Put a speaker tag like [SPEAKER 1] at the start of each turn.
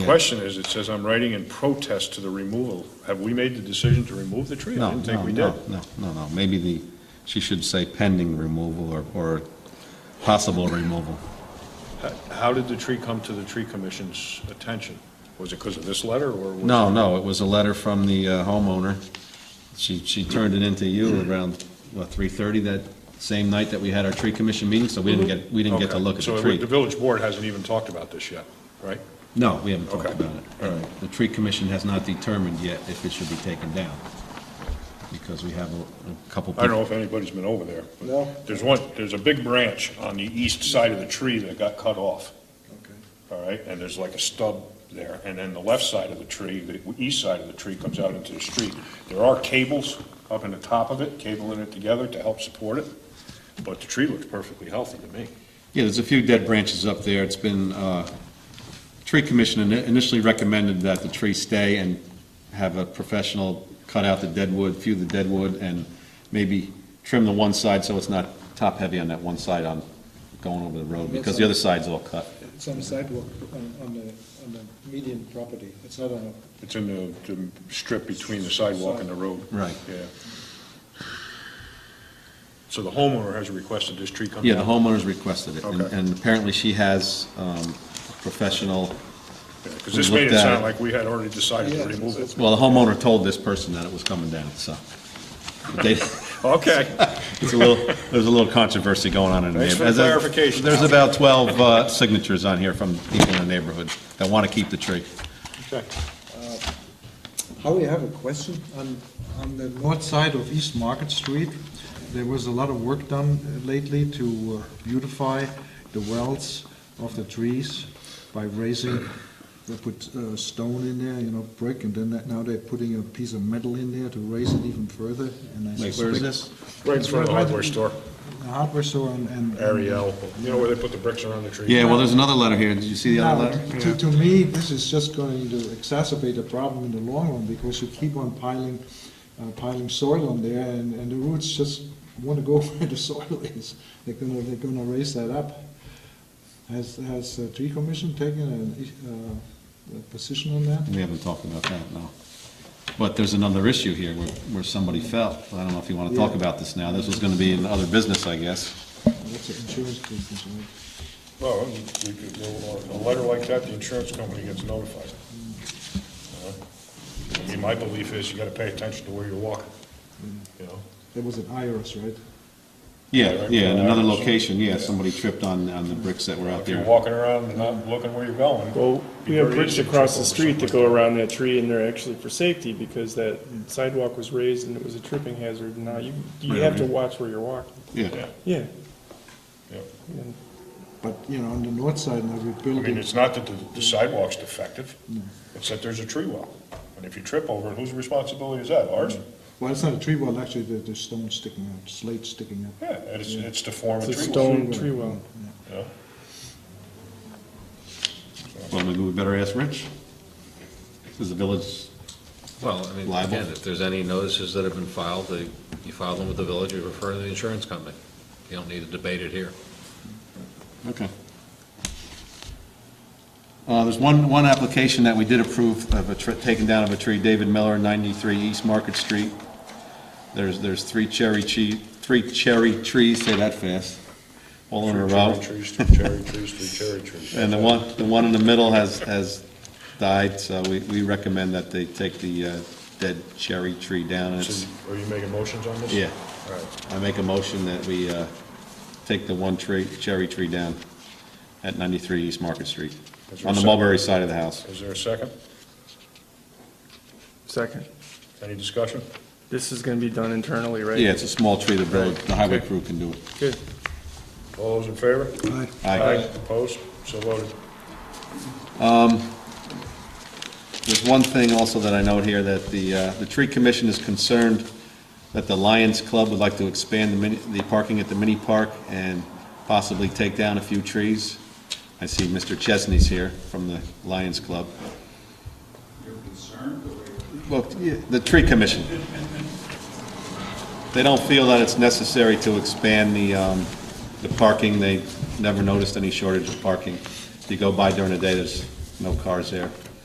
[SPEAKER 1] Question is, it says I'm writing in protest to the removal. Have we made the decision to remove the tree? I
[SPEAKER 2] No,
[SPEAKER 1] didn't
[SPEAKER 2] no,
[SPEAKER 1] think we
[SPEAKER 2] no,
[SPEAKER 1] did.
[SPEAKER 2] no, no, no. Maybe the, she should say pending removal or, or possible removal.
[SPEAKER 1] H- How did the tree come to the tree commission's attention? Was it because of this letter or? was-
[SPEAKER 2] No, no, it was a letter from the uh, homeowner. She, she turned it into you around, what, 3:30 that same night that we had our tree commission meeting, so we didn't get, we didn't get to
[SPEAKER 1] Okay.
[SPEAKER 2] look at
[SPEAKER 1] So
[SPEAKER 2] the
[SPEAKER 1] it-
[SPEAKER 2] tree.
[SPEAKER 1] the village board hasn't even talked about this yet, right?
[SPEAKER 2] No, we haven't talked
[SPEAKER 1] Okay.
[SPEAKER 2] about it.
[SPEAKER 1] All
[SPEAKER 2] And The tree commission has not determined yet if it should be taken down, because we have a a couple.
[SPEAKER 1] I don't know if anybody's been over there. but
[SPEAKER 3] No.
[SPEAKER 1] There's one, there's a big branch on the east side of the tree that got cut off,
[SPEAKER 3] Okay.
[SPEAKER 1] all right? And there's like a stub there, and then the left side of the tree, the east side of the tree comes out into the street. There are cables up in the top of it, cabling it together to help support it, but the tree looks perfectly healthy to me.
[SPEAKER 2] Yeah, there's a few dead branches up there. It's been, uh, tree commission ini- initially recommended that the tree stay and have a professional cut out the dead wood, few the dead wood, and maybe trim the one side so it's not top-heavy on that one side on going over the road, because the other side's all cut.
[SPEAKER 3] It's on the sidewalk, on, on the, on the median property, it's not on a,
[SPEAKER 1] It's in the, the strip between the sidewalk and the road.
[SPEAKER 2] Right.
[SPEAKER 1] Yeah. So the homeowner has requested this tree come down?
[SPEAKER 2] Yeah, the homeowners requested it, and-
[SPEAKER 1] Okay.
[SPEAKER 2] and apparently she has um, a professional,
[SPEAKER 1] Because this made
[SPEAKER 2] Looked
[SPEAKER 1] it
[SPEAKER 2] at
[SPEAKER 1] sound
[SPEAKER 2] it.
[SPEAKER 1] like we had already decided to
[SPEAKER 3] Yeah,
[SPEAKER 1] remove
[SPEAKER 3] so
[SPEAKER 1] it.
[SPEAKER 3] it's-
[SPEAKER 2] well, the homeowner told this person that it was coming down, so. But they-
[SPEAKER 1] Okay.
[SPEAKER 2] It's a little, there's a little controversy going on in the
[SPEAKER 1] Thanks for
[SPEAKER 2] neighborhood.
[SPEAKER 1] the clarification.
[SPEAKER 2] There's about 12 uh, signatures on here from people in the neighborhood that want to keep the tree.
[SPEAKER 1] Okay.
[SPEAKER 3] Howie, I have a question. On, on the north side of East Market Street, there was a lot of work done lately to uh, beautify the wells of the trees by raising, they put uh, stone in there, you know, brick, and then that- now they're putting a piece of metal in there to raise it even further, and I
[SPEAKER 2] Wait,
[SPEAKER 3] suspect...
[SPEAKER 2] where is this?
[SPEAKER 1] Right in front of the hardware store,
[SPEAKER 3] The hardware store and... and-
[SPEAKER 1] Ariel, you know where they put the bricks around the tree?
[SPEAKER 2] Yeah, well, there's another letter here. Did you see the other
[SPEAKER 3] Now,
[SPEAKER 2] letter?
[SPEAKER 3] to, to me, this is just going to exacerbate the problem in the long run, because you keep on piling, uh, piling soil on there, and, and the roots just want to go where the soil is. They're gonna, they're gonna raise that up. Has, has the tree commission taken an, uh, a position on that?
[SPEAKER 2] We haven't talked about that, no. But there's another issue here where, where somebody fell. I don't know if you want to talk
[SPEAKER 3] Yeah.
[SPEAKER 2] about this now. This was going to be in other business, I guess.
[SPEAKER 3] That's an insurance business, right?
[SPEAKER 1] Well, Oh, you- you could- a letter like that, the insurance company gets notified. You know? I mean, my belief is you gotta pay attention to where you're walking, you know?
[SPEAKER 3] That was an IRS, right?
[SPEAKER 2] Yeah, yeah, in another location, yeah, somebody tripped on, on the bricks that were out
[SPEAKER 1] If you're
[SPEAKER 2] there.
[SPEAKER 1] walking around and not looking where you're going.
[SPEAKER 4] Well,
[SPEAKER 1] it'd
[SPEAKER 4] we
[SPEAKER 1] be
[SPEAKER 4] have
[SPEAKER 1] very
[SPEAKER 4] bricks
[SPEAKER 1] easy to
[SPEAKER 4] across
[SPEAKER 1] trip over
[SPEAKER 4] the street that
[SPEAKER 1] something.
[SPEAKER 4] go around that tree, and they're actually for safety, because that sidewalk was raised and it was a tripping hazard, and now you, you
[SPEAKER 2] Right,
[SPEAKER 4] have to
[SPEAKER 2] right.
[SPEAKER 4] watch where you're walking.
[SPEAKER 2] Yeah,
[SPEAKER 4] Yeah,
[SPEAKER 1] Yeah, yeah.
[SPEAKER 4] and
[SPEAKER 3] But, you know, on the north side now, we're
[SPEAKER 1] I mean,
[SPEAKER 3] building,
[SPEAKER 1] it's not that the- the sidewalk's defective, it's that there's a tree well. And if you trip over it, whose responsibility is that? Ours?
[SPEAKER 2] Mm.
[SPEAKER 3] well, it's not a tree well, actually, there- there's stone sticking out, slate sticking out.
[SPEAKER 1] Yeah, and it's, it's to form a
[SPEAKER 4] it's
[SPEAKER 1] tree
[SPEAKER 4] a
[SPEAKER 1] well.
[SPEAKER 4] stone tree well.
[SPEAKER 1] you know?
[SPEAKER 2] well, maybe we better ask Rich. Is the village
[SPEAKER 5] Well, I mean,
[SPEAKER 2] Liable?
[SPEAKER 5] again, if there's any notices that have been filed, they- you file them with the village, you refer to the insurance company. You don't need to debate it here.
[SPEAKER 2] Okay. Uh, There's one, one application that we did approve of a, tr- taken down of a tree, David Miller, 93 East Market Street. There's, there's three cherry tree, three cherry trees, say that fast, all in a row.
[SPEAKER 1] Three cherry trees, three cherry trees, three cherry trees.
[SPEAKER 2] And the one, the one in the middle has, has died, so we, we recommend that they take the uh, dead cherry tree down. And
[SPEAKER 1] So
[SPEAKER 2] it's-
[SPEAKER 1] Are you making motions on this?
[SPEAKER 2] Yeah.
[SPEAKER 1] All right.
[SPEAKER 2] I make a motion that we uh, take the one tree, cherry tree down at 93 East Market Street,
[SPEAKER 1] Is there a
[SPEAKER 2] on the
[SPEAKER 1] second?
[SPEAKER 2] Mulberry side of the house.
[SPEAKER 1] Is there a second?
[SPEAKER 4] Second,
[SPEAKER 1] Any discussion?
[SPEAKER 4] this is gonna be done internally, right?
[SPEAKER 2] Yeah, it's a small tree, the road, the highway
[SPEAKER 4] Okay.
[SPEAKER 2] crew can do it.
[SPEAKER 4] Good.
[SPEAKER 1] All those in favor?
[SPEAKER 3] Right.
[SPEAKER 2] Aye.
[SPEAKER 1] Opposed? So voted.
[SPEAKER 2] There's one thing also that I note here, that the, uh, the tree commission is concerned that the Lions Club would like to expand the mini, the parking at the mini park and possibly take down a few trees. I see Mr. Chesney's here from the Lions Club. You're concerned? Well, yeah, the tree commission. They don't feel that it's necessary to expand the, um, the parking. They never noticed any shortage of parking. If you go by during the day, there's no cars there.